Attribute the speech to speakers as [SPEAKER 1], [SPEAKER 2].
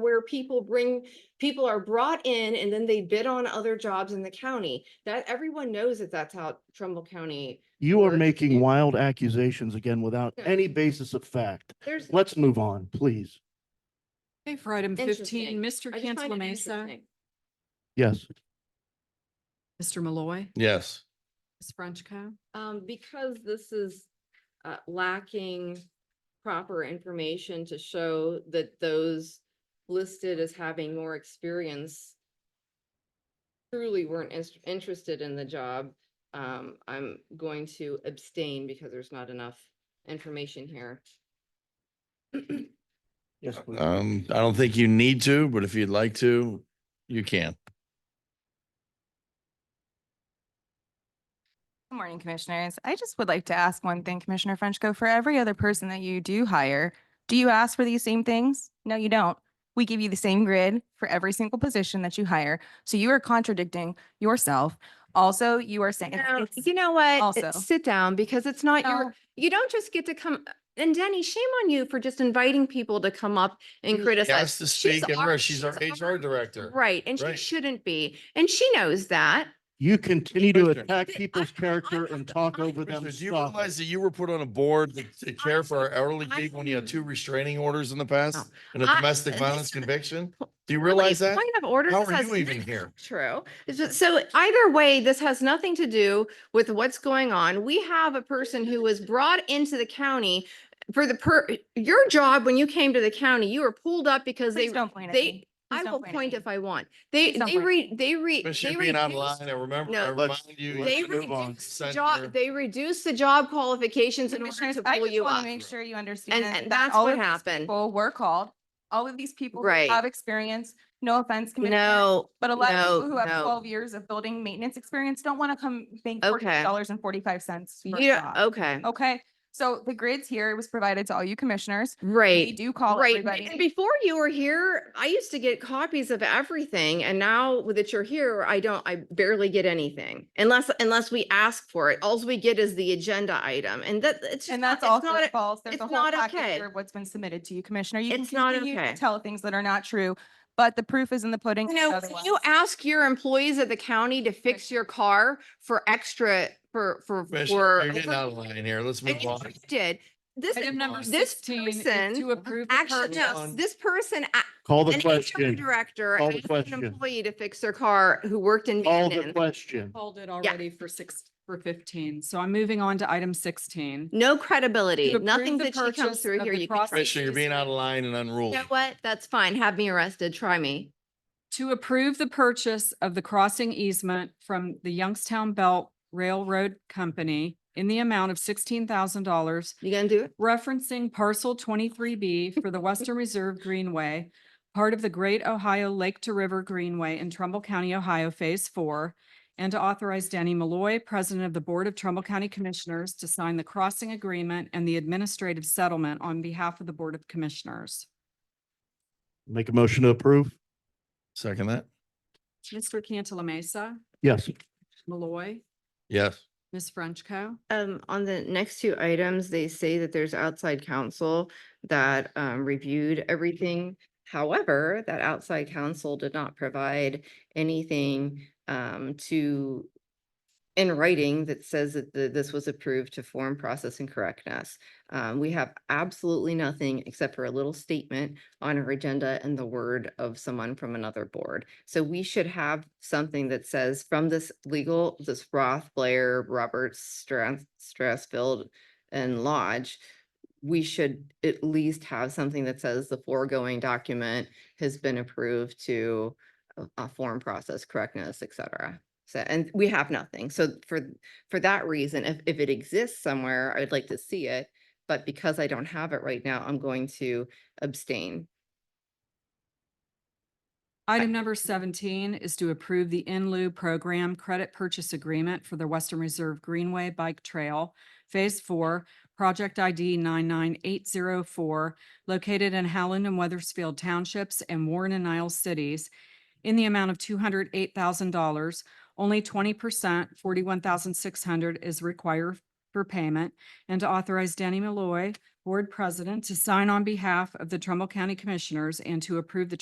[SPEAKER 1] where people bring, people are brought in and then they bid on other jobs in the county. That everyone knows that that's how Trumbull County,
[SPEAKER 2] You are
[SPEAKER 1] Or-
[SPEAKER 2] making wild accusations again without
[SPEAKER 1] Yeah.
[SPEAKER 2] any basis of fact.
[SPEAKER 1] there's.
[SPEAKER 2] Let's move on, please.
[SPEAKER 3] Okay, for item
[SPEAKER 1] Interesting.
[SPEAKER 3] fifteen, Mr.
[SPEAKER 1] I just find
[SPEAKER 3] Cantala
[SPEAKER 1] it
[SPEAKER 3] Mesa,
[SPEAKER 1] interesting.
[SPEAKER 2] Yes,
[SPEAKER 3] Mr. Malloy,
[SPEAKER 4] Yes,
[SPEAKER 3] Ms. Frenchco.
[SPEAKER 1] Um, because this is, uh, lacking proper information to show that those listed as having more experience truly weren't ins- interested in the job, um, I'm going to abstain because there's not enough information here.
[SPEAKER 2] yes, please.
[SPEAKER 4] um, I don't think you need to, but if you'd like to, you can.
[SPEAKER 5] Good morning, Commissioners. I just would like to ask one thing, Commissioner Frenchco. For every other person that you do hire, do you ask for these same things? No, you don't. We give you the same grid for every single position that you hire. So you are contradicting yourself. Also, you are saying,
[SPEAKER 1] Now,
[SPEAKER 5] it's-
[SPEAKER 1] you know what?
[SPEAKER 5] also-
[SPEAKER 1] Sit down because it's not
[SPEAKER 5] No.
[SPEAKER 1] your, you don't just get to come. And Denny, shame on you for just inviting people to come up and
[SPEAKER 5] Mm.
[SPEAKER 1] criticize.
[SPEAKER 4] Has to
[SPEAKER 1] She's
[SPEAKER 4] speak and
[SPEAKER 1] our-
[SPEAKER 4] her, she's our HR director.
[SPEAKER 1] Right, and she
[SPEAKER 4] Right.
[SPEAKER 1] shouldn't be. And she knows that.
[SPEAKER 2] You continue to
[SPEAKER 4] Commissioner.
[SPEAKER 2] attack
[SPEAKER 1] Th-
[SPEAKER 2] people's
[SPEAKER 1] I- I-
[SPEAKER 2] character
[SPEAKER 1] I-
[SPEAKER 2] and talk
[SPEAKER 1] I-
[SPEAKER 2] over them.
[SPEAKER 4] Commissioners, do you
[SPEAKER 2] Stop it.
[SPEAKER 4] realize that you were put on a board to- to care for our elderly
[SPEAKER 1] I-
[SPEAKER 4] people when you had two restraining orders in the past and a
[SPEAKER 1] I-
[SPEAKER 4] domestic violence conviction? Do you realize
[SPEAKER 1] Really,
[SPEAKER 4] that?
[SPEAKER 1] Point of order.
[SPEAKER 4] How
[SPEAKER 1] this
[SPEAKER 4] are
[SPEAKER 1] has
[SPEAKER 4] you even
[SPEAKER 1] nothing-
[SPEAKER 4] here?
[SPEAKER 1] True. It's just- So either way, this has nothing to do with what's going on. We have a person who was brought into the county for the per, your job when you came to the county, you were pulled up because they
[SPEAKER 5] please don't point at
[SPEAKER 1] they,
[SPEAKER 5] me.
[SPEAKER 1] I
[SPEAKER 5] Please don't
[SPEAKER 1] will
[SPEAKER 5] point at
[SPEAKER 1] point
[SPEAKER 5] me.
[SPEAKER 1] if I want. They,
[SPEAKER 5] Please don't
[SPEAKER 1] they
[SPEAKER 5] point at
[SPEAKER 1] re, they re.
[SPEAKER 4] Commissioner
[SPEAKER 1] they
[SPEAKER 4] being
[SPEAKER 1] reduced-
[SPEAKER 4] online, I remember,
[SPEAKER 1] No,
[SPEAKER 4] I
[SPEAKER 2] let's-
[SPEAKER 4] remind you.
[SPEAKER 2] let's
[SPEAKER 1] They
[SPEAKER 4] you
[SPEAKER 2] move on.
[SPEAKER 1] reduced the
[SPEAKER 4] sent your-
[SPEAKER 1] job, they reduced the job qualifications in order
[SPEAKER 5] Commissioners,
[SPEAKER 1] to
[SPEAKER 5] I
[SPEAKER 1] pull
[SPEAKER 5] just
[SPEAKER 1] you
[SPEAKER 5] wanna
[SPEAKER 1] up.
[SPEAKER 5] Make sure you
[SPEAKER 1] And,
[SPEAKER 5] understand.
[SPEAKER 1] and
[SPEAKER 5] that
[SPEAKER 1] that's
[SPEAKER 5] all
[SPEAKER 1] what
[SPEAKER 5] of these
[SPEAKER 1] happened.
[SPEAKER 5] People were called. All of these people who
[SPEAKER 1] Right.
[SPEAKER 5] have experience, no offense, Commissioner.
[SPEAKER 1] No,
[SPEAKER 5] But a lot of
[SPEAKER 1] No,
[SPEAKER 5] people who have
[SPEAKER 1] no.
[SPEAKER 5] twelve years of building maintenance experience don't want to come bank forty
[SPEAKER 1] Okay. oh.
[SPEAKER 5] dollars and forty-five cents. for Oh, a
[SPEAKER 1] you, don't-
[SPEAKER 5] job.
[SPEAKER 1] okay,
[SPEAKER 5] Okay, so the grids here was provided to all you commissioners. We
[SPEAKER 1] right.
[SPEAKER 5] do call
[SPEAKER 1] Right, but- and
[SPEAKER 5] everybody.
[SPEAKER 1] before you were here, I used to get copies of everything, and now that you're here, I don't, I barely get anything. Unless, unless we ask for it, alls we get is the agenda item, and that, it's. just
[SPEAKER 5] And
[SPEAKER 1] not-
[SPEAKER 5] that's
[SPEAKER 1] it's
[SPEAKER 5] also
[SPEAKER 1] not a-
[SPEAKER 5] false. There's
[SPEAKER 1] it's
[SPEAKER 5] a whole
[SPEAKER 1] not
[SPEAKER 5] package
[SPEAKER 1] okay.
[SPEAKER 5] here of what's been submitted to you, Commissioner. You can
[SPEAKER 1] It's not
[SPEAKER 5] continue
[SPEAKER 1] okay.
[SPEAKER 5] to tell things that are not true, but the proof is in the pudding.
[SPEAKER 1] You know, if
[SPEAKER 5] otherwise.
[SPEAKER 1] you ask your employees at the county to fix your car for extra, for, for,
[SPEAKER 4] Commissioner,
[SPEAKER 1] for.
[SPEAKER 4] You're getting
[SPEAKER 1] over-
[SPEAKER 4] out of line here. Let's
[SPEAKER 1] And
[SPEAKER 4] move
[SPEAKER 1] you
[SPEAKER 4] on.
[SPEAKER 1] Did, this,
[SPEAKER 3] Item number
[SPEAKER 1] this
[SPEAKER 3] sixteen is
[SPEAKER 1] person
[SPEAKER 3] to approve. the
[SPEAKER 1] actually,
[SPEAKER 3] purchase-
[SPEAKER 1] no, this person, a-
[SPEAKER 2] Call the
[SPEAKER 1] an HR
[SPEAKER 2] question.
[SPEAKER 1] director,
[SPEAKER 2] Call the
[SPEAKER 1] asked an
[SPEAKER 2] question.
[SPEAKER 1] employee to fix their car who worked in
[SPEAKER 2] Call the
[SPEAKER 1] maintenance.
[SPEAKER 2] question.
[SPEAKER 3] Called it already for six, for fifteen, so I'm moving on to item sixteen.
[SPEAKER 1] No credibility,
[SPEAKER 3] To approve
[SPEAKER 1] nothing
[SPEAKER 3] the
[SPEAKER 1] that she comes
[SPEAKER 3] purchase
[SPEAKER 1] through
[SPEAKER 3] of
[SPEAKER 1] here.
[SPEAKER 3] the
[SPEAKER 1] You can try.
[SPEAKER 3] process-
[SPEAKER 4] Commissioner, you're being out of line and
[SPEAKER 1] You
[SPEAKER 4] unruly.
[SPEAKER 1] know what? That's fine. Have me arrested. Try me.
[SPEAKER 3] To approve the purchase of the crossing easement from the Youngstown Belt Railroad Company in the amount of sixteen thousand dollars
[SPEAKER 1] You gonna do it?
[SPEAKER 3] referencing parcel twenty-three B for the Western Reserve Greenway, part of the Great Ohio Lake to River Greenway in Trumbull County, Ohio, Phase Four, and to authorize Danny Malloy, President of the Board of Trumbull County Commissioners, to sign the crossing agreement and the administrative settlement on behalf of the Board of Commissioners.
[SPEAKER 2] Make a motion to approve?
[SPEAKER 4] Second that?
[SPEAKER 3] Mr. Cantala Mesa,
[SPEAKER 2] Yes.
[SPEAKER 3] Malloy,
[SPEAKER 4] Yes.
[SPEAKER 3] Ms. Frenchco.
[SPEAKER 1] Um, on the next two items, they say that there's outside counsel that um reviewed everything. However, that outside counsel did not provide anything um to in writing that says that the, this was approved to form process and correctness. Um, we have absolutely nothing except for a little statement on our agenda and the word of someone from another board. So we should have something that says from this legal, this Roth, Blair, Roberts, Strath, Strathfield and Lodge, we should at least have something that says the foregoing document has been approved to a- a form process correctness, et cetera. So, and we have nothing. So for, for that reason, if, if it exists somewhere, I'd like to see it. But because I don't have it right now, I'm going to abstain.
[SPEAKER 3] Item number seventeen is to approve the in lieu program credit purchase agreement for the Western Reserve Greenway Bike Trail, Phase Four, Project ID nine nine eight zero four, located in Howland and Weathersfield Townships and Warren and Niles Cities, in the amount of two hundred eight thousand dollars. Only twenty percent, forty-one thousand six hundred dollars is required for payment, and to authorize Danny Malloy, Board President, to sign on behalf of the Trumbull County Commissioners and to approve the